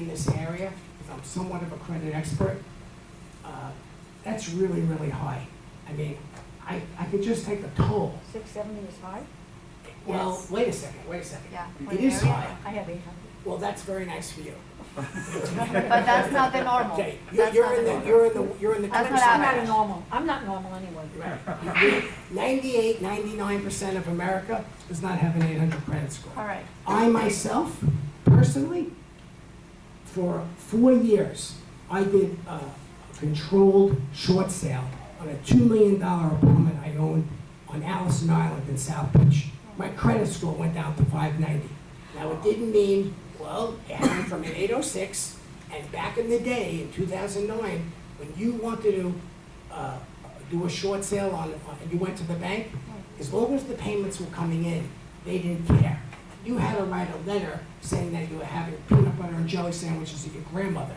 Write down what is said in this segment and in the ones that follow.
in this area, because I'm somewhat of a credit expert, uh, that's really, really high. I mean, I, I could just take the toll. Six seventy is high? Well, Yes. wait a second, wait a second. Yeah. It is high. I have eight hundred. Well, that's very nice for you. But that's not the normal. Okay, you're, Oh, That's you're not in the the, normal. you're in the, you're in the That's twenty not I'm average. not a percent. normal, I'm not normal anyway. Ninety-eight, ninety-nine percent of America does not have an eight hundred credit score. All right. I myself, personally, for four years, I did a controlled short sale on a $2 million apartment I owned on Allison Island in South Beach. My credit score went down to 590. Now, it didn't mean, well, it happened from an 806, and back in the day, in 2009, when you wanted to uh, do a short sale on, on- and you went to the bank, as long as the payments were coming in, they didn't care. You had to write a letter saying that you were having peanut butter and jelly sandwiches at your grandmother.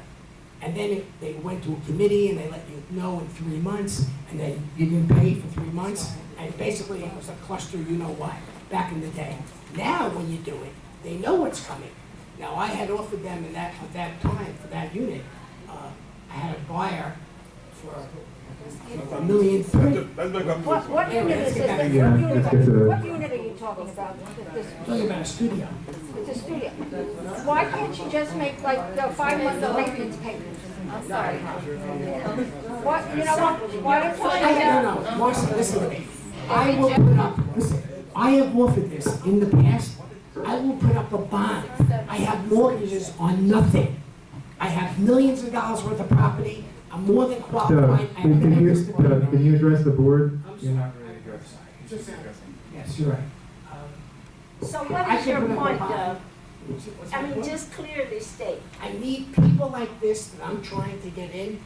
And then it- they went to a committee and they let you know in three months, and then you didn't pay for three months. And basically, it was a cluster, you know what, back in the day. Now, when you do it, they know what's coming. Now, I had offered them in that, at that time, for that unit, uh, I had a buyer for a million three. What, what Yeah, unit is it's this? What got- unit, it's- it's a- what unit are you talking about? This, Talking about a studio. it's a studio. Why can't you just make like the five months of maintenance payments? I'm sorry. What, you know what, why don't you? I have, no, no, Marcy, listen to me. I will put up, listen, I have offered this in the past. I will put up a bond. I have mortgages on nothing. I have millions of dollars worth of property. I'm more than So, qualified. I can, have can you, this so, department. can you address the board? I'm You're sorry. not really addressing. Yes, you're right. Um, So I what is can your put up a point, bond. Doug? what's- what's I my mean, point? just clear the state. I need people like this that I'm trying to get in,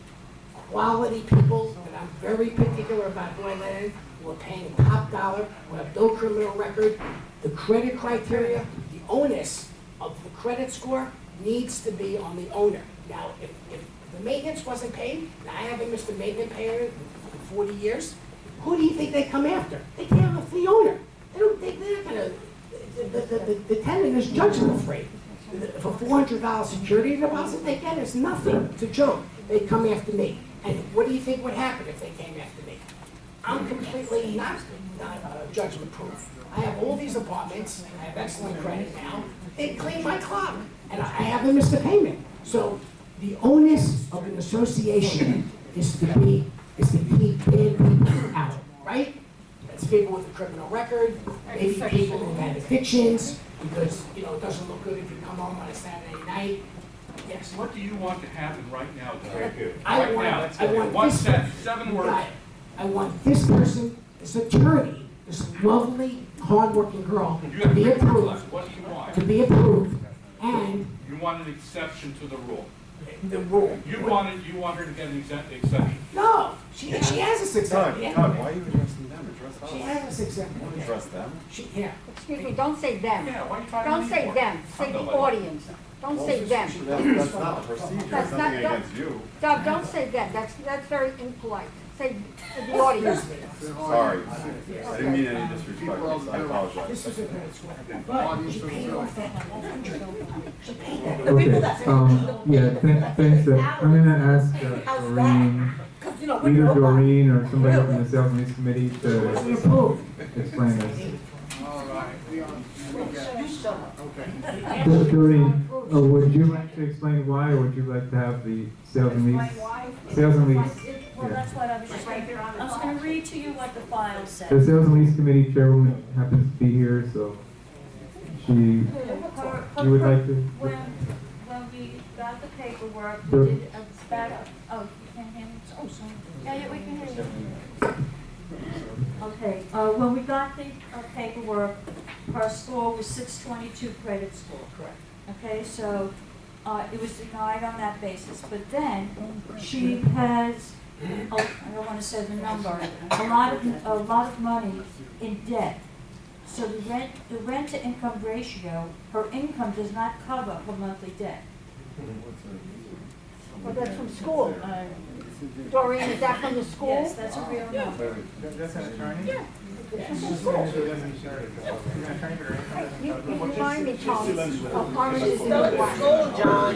quality people that I'm very particular about who I let in, who are paying top dollar, who have no criminal record. The credit criteria, the onus of the credit score needs to be on the owner. Now, if, if the maintenance wasn't paid, and I haven't missed a maintenance payment in forty years, who do you think they come after? They can't have the owner. They don't, they, they're not gonna, the, the, the- the tenant is judgment free. For four hundred dollar security deposit, they get is nothing, it's a joke. They come after me. And what do you think would happen if they came after me? I'm completely not, not uh, judgment proof. I have all these apartments, I have excellent credit now, they clean my clock, and I I haven't missed a payment. So the onus of an association is to be, is to keep bad people out, right? That's people with a criminal record, maybe people who have addictions, because, you know, it doesn't look good if you come home on a Saturday night. Yes, What do you want to happen right now, Doug? I Right want- now, I want One this- sentence, seven words. Right. I want this person, this attorney, this lovely, hardworking girl, You to have be three words approved, left. What do you to want? be approved, and You want an exception to the rule. the rule. You want it, you want her to get an exempt, exception. No, she, she has a success. Doug, Doug, why are you addressing them? Address us. She has a success. Don't address them. She, yeah. Excuse me, don't say them. Yeah, why are you talking to Don't me say for? them, say the Somebody. audience. Don't say them. That- That's not a procedure, That's not- it's nothing that- against you. Doug, don't say them, that's, that's very impolite. Say the audience. Sorry, I didn't mean any disrespect, I apologize. This is a credit score. But she paid off that hundred. She paid that. Okay, um, yeah, thanks, thanks, Doug. I'm gonna ask uh, Doreen, either Doreen or somebody from the sales and lease committee She to approved. explain this. You show up. So, Doreen, uh, would you like to explain why, or would you like to have the sales and lease? Sales and lease, Well, yeah. that's what I was just right here on the. I was gonna read to you what the file says. The sales and lease committee chairwoman happens to be here, so she, you would like to? When, when we got the paperwork, The- we did a back, oh, you can't hear me? Oh, sorry. Yeah, yeah, we can hear you. Okay, uh, when we got the uh, paperwork, her score was six twenty-two credit score. Correct. Okay, so, uh, it was denied on that basis, but then she has, oh, I don't wanna say the number, a lot of, a lot of money in debt. So the rent, the rent to income ratio, her income does not cover her monthly debt. Well, Oh, that's from school. Doreen, is that from the school? Yes, that's a real number. That's an attorney? You you remind me, Thomas, of oranges is the Go, New Black. go, John.